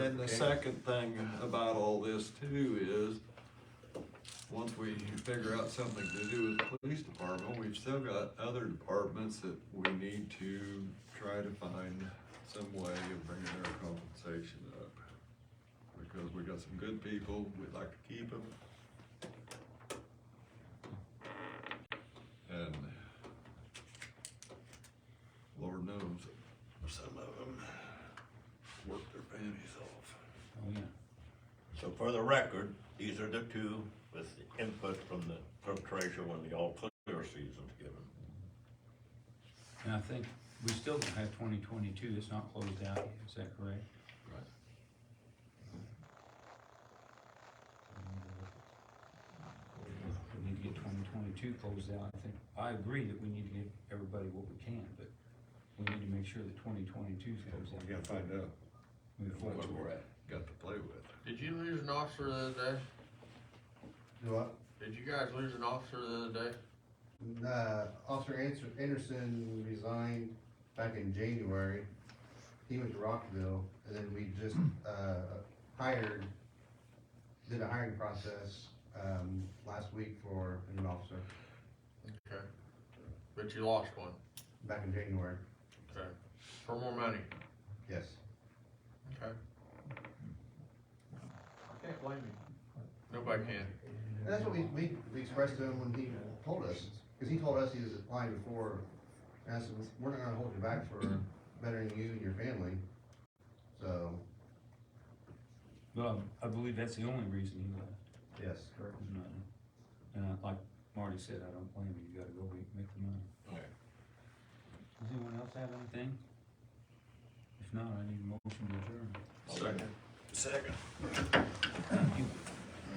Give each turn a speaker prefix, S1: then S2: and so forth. S1: And the second thing about all this too is, once we figure out something to do with the police department, we've still got other departments that we need to try to find some way of bringing their compensation up. Because we got some good people, we'd like to keep them. And Lord knows, some of them work their panties off.
S2: Oh, yeah.
S3: So for the record, these are the two with the input from the clerk treasurer when the all clear season's given.
S2: And I think we still don't have twenty twenty-two, it's not closed out, yet, is that correct?
S1: Right.
S2: We need to get twenty twenty-two closed out, I think, I agree that we need to give everybody what we can, but we need to make sure that twenty twenty-two's closed out.
S1: We gotta find out
S2: before
S1: what
S2: it's-
S1: we're at, got to play with.
S4: Did you lose an officer the other day?
S5: Do I,
S4: Did you guys lose an officer the other day?
S5: uh, Officer Ans- Anderson resigned back in January. He went to Rockville, and then we just, uh, hired, did a hiring process, um, last week for a new officer,
S4: Okay. But you lost one.
S5: back in January,
S4: Okay. For more money.
S5: yes.
S4: Okay. I can't blame you. Nobody can.
S5: And that's what we, we, we expressed to him when he told us, cause he told us he was applying before, and I said, we're not gonna hold you back for bettering you and your family, so,
S2: Well, I I believe that's the only reason he left.
S5: yes.
S2: Correct. And I- like Marty said, I don't blame you, you gotta go make, make the money.
S3: Okay.
S2: Does anyone else have anything? If not, I need a motion to adjourn.
S3: Second. Second.